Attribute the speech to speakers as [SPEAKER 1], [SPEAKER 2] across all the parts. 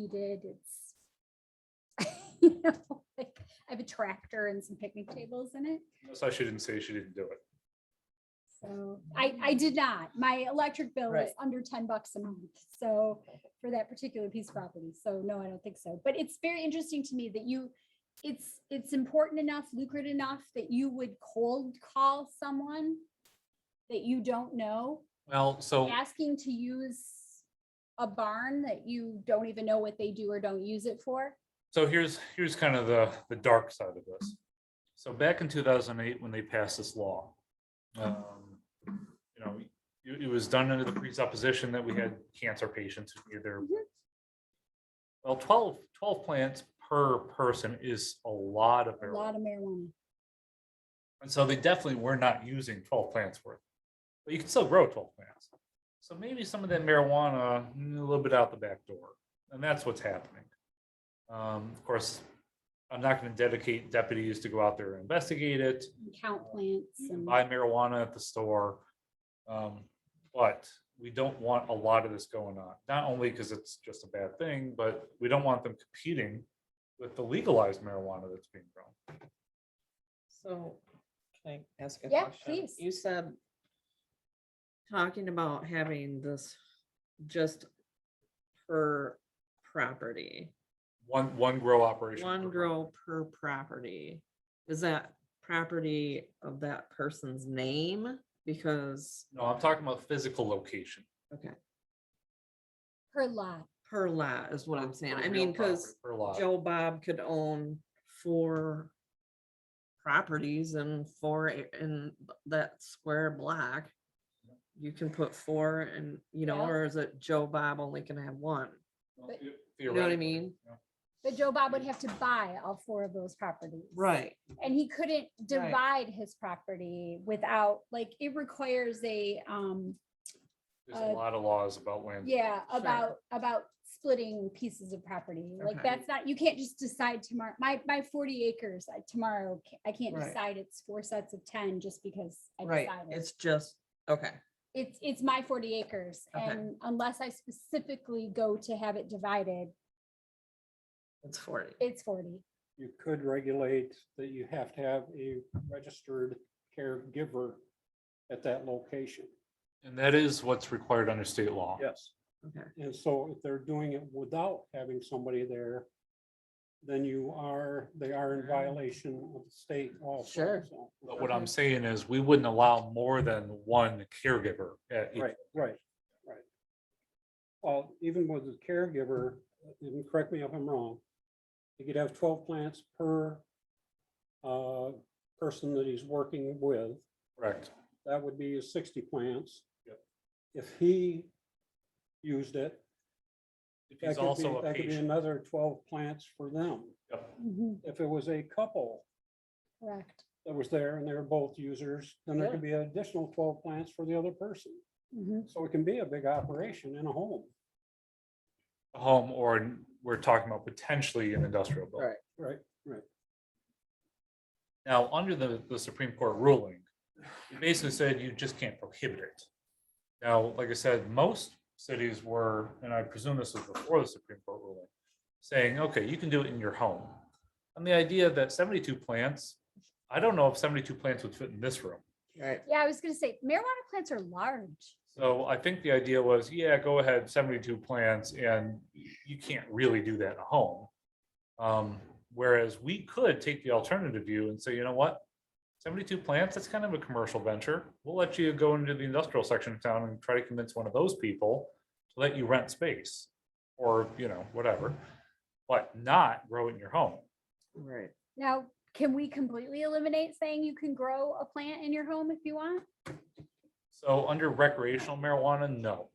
[SPEAKER 1] heated, it's. You know, like, I have a tractor and some picnic tables in it,
[SPEAKER 2] So she didn't say she didn't do it.
[SPEAKER 1] so I, I did not. My electric bill is
[SPEAKER 3] Right.
[SPEAKER 1] under ten bucks a month, so for that particular piece of property, so no, I don't think so. But it's very interesting to me that you, it's, it's important enough, lucrative enough that you would cold call someone that you don't know
[SPEAKER 2] Well, so
[SPEAKER 1] asking to use a barn that you don't even know what they do or don't use it for.
[SPEAKER 2] so here's here's kind of the the dark side of this. So back in two thousand eight, when they passed this law, um, you know, it, it was done under the presupposition that we had cancer patients who needed their.
[SPEAKER 1] Mhm.
[SPEAKER 2] Well, 12 12 plants per person is a lot of
[SPEAKER 1] A
[SPEAKER 2] marijuana.
[SPEAKER 1] lot of marijuana.
[SPEAKER 2] And so they definitely were not using twelve plants worth, but you can still grow twelve plants. So maybe some of that marijuana, mm, a little bit out the back door, and that's what's happening. Um, of course, I'm not gonna dedicate deputies to go out there and investigate it,
[SPEAKER 1] and Count plants
[SPEAKER 2] you can
[SPEAKER 1] and
[SPEAKER 2] buy marijuana at the store. Um, but we don't want a lot of this going on, not only because it's just a bad thing, but we don't want them competing with the legalized marijuana that's being grown.
[SPEAKER 3] So, can I ask a
[SPEAKER 1] Yeah,
[SPEAKER 3] question?
[SPEAKER 1] please.
[SPEAKER 3] You said talking about having this just per property,
[SPEAKER 2] One, one grow operation. per
[SPEAKER 3] one
[SPEAKER 2] month.
[SPEAKER 3] grow per property. Is that property of that person's name? Because
[SPEAKER 2] No, I'm talking about physical location.
[SPEAKER 1] per lot.
[SPEAKER 3] per lot is what I'm saying.
[SPEAKER 2] per
[SPEAKER 3] I
[SPEAKER 2] real
[SPEAKER 3] mean,
[SPEAKER 2] property,
[SPEAKER 3] because
[SPEAKER 2] Per lot.
[SPEAKER 3] Joe Bob could own four properties and four a- in that square block. You can put four and, you know,
[SPEAKER 1] Yeah.
[SPEAKER 3] or is it Joe Bob only can have one?
[SPEAKER 2] Well,
[SPEAKER 1] but-
[SPEAKER 2] the-
[SPEAKER 3] You know what I
[SPEAKER 2] theoretically,
[SPEAKER 3] mean?
[SPEAKER 2] yeah.
[SPEAKER 1] But Joe Bob would have to buy all four of those properties.
[SPEAKER 3] Right.
[SPEAKER 1] And he couldn't divide his property without, like, it requires a, um,
[SPEAKER 2] There's
[SPEAKER 1] Uh,
[SPEAKER 2] a lot of laws about land.
[SPEAKER 1] yeah,
[SPEAKER 3] Sure.
[SPEAKER 1] about, about splitting pieces of property. Like,
[SPEAKER 3] Okay.
[SPEAKER 1] that's not, you can't just decide tomorrow. My, my forty acres, I- tomorrow, ca- I can't
[SPEAKER 3] Right.
[SPEAKER 1] decide it's four sets of ten just because I
[SPEAKER 3] Right.
[SPEAKER 1] decided.
[SPEAKER 3] It's just, okay,
[SPEAKER 1] it's, it's my forty acres
[SPEAKER 3] Okay.
[SPEAKER 1] and unless I specifically go to have it divided,
[SPEAKER 3] it's forty.
[SPEAKER 1] it's forty.
[SPEAKER 4] you could regulate that you have to have a registered caregiver at that location.
[SPEAKER 2] And that is what's required under state law.
[SPEAKER 4] Yes.
[SPEAKER 3] Okay.
[SPEAKER 4] And so if they're doing it without having somebody there, then you are, they are in violation of the state also.
[SPEAKER 3] Sure.
[SPEAKER 4] so.
[SPEAKER 2] But what
[SPEAKER 3] Okay.
[SPEAKER 2] I'm saying is we wouldn't allow more than one caregiver at each.
[SPEAKER 4] Right, right, right. Well, even with the caregiver, and correct me if I'm wrong, you could have twelve plants per uh, person that he's working with.
[SPEAKER 2] Correct.
[SPEAKER 4] that would be his sixty plants.
[SPEAKER 2] Yep.
[SPEAKER 4] If he used it,
[SPEAKER 2] If
[SPEAKER 4] that
[SPEAKER 2] he's
[SPEAKER 4] could be,
[SPEAKER 2] also a
[SPEAKER 4] that could be
[SPEAKER 2] patient.
[SPEAKER 4] another twelve plants for them.
[SPEAKER 2] Yep.
[SPEAKER 1] Mhm,
[SPEAKER 4] If it was a couple
[SPEAKER 1] Correct.
[SPEAKER 4] that was there and they were both users, then there
[SPEAKER 3] Sure.
[SPEAKER 4] could be an additional twelve plants for the other person.
[SPEAKER 1] Mhm.
[SPEAKER 4] So it can be a big operation in a home,
[SPEAKER 2] A Home or an- we're talking about potentially an industrial building.
[SPEAKER 3] Right.
[SPEAKER 4] right?
[SPEAKER 2] Now, under the, the Supreme Court ruling, it basically said you just can't prohibit it. Now, like I said, most cities were, and I presume this was before the Supreme Court ruling, saying, okay, you can do it in your home. And the idea that seventy-two plants, I don't know if seventy-two plants would fit in this room.
[SPEAKER 3] Right.
[SPEAKER 1] Yeah, I was gonna say marijuana plants are large.
[SPEAKER 2] So I think the idea was, yeah, go ahead, seventy-two plants, and you can't really do that at home. Um, whereas we could take the alternative view and say, you know what? Seventy-two plants, that's kind of a commercial venture. We'll let you go into the industrial section of town and try to convince one of those people to let you rent space or, you know, whatever, but not grow it in your home.
[SPEAKER 3] Right.
[SPEAKER 1] Now, can we completely eliminate saying you can grow a plant in your home if you want?
[SPEAKER 2] So under recreational marijuana, no.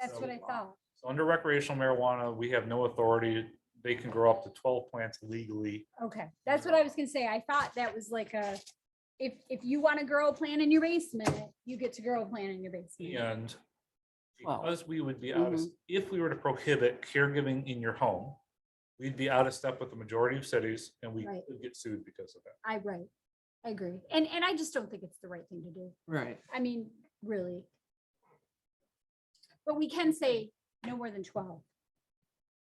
[SPEAKER 1] That's what
[SPEAKER 2] So-
[SPEAKER 1] I thought.
[SPEAKER 2] So under recreational marijuana, we have no authority. They can grow up to twelve plants legally.
[SPEAKER 1] Okay, that's what I was gonna say. I thought that was like a, if, if you wanna grow a plant in your basement, you get to grow a plant in your basement.
[SPEAKER 2] And
[SPEAKER 3] Wow.
[SPEAKER 2] because we would be out of, if we were to prohibit caregiving in your home, we'd be out of step with the majority of cities and we
[SPEAKER 1] Right.
[SPEAKER 2] could get sued because of that.
[SPEAKER 1] I, right, I agree. And, and I just don't think it's the right thing to do.
[SPEAKER 3] Right.
[SPEAKER 1] I mean, really. But we can say no more than twelve.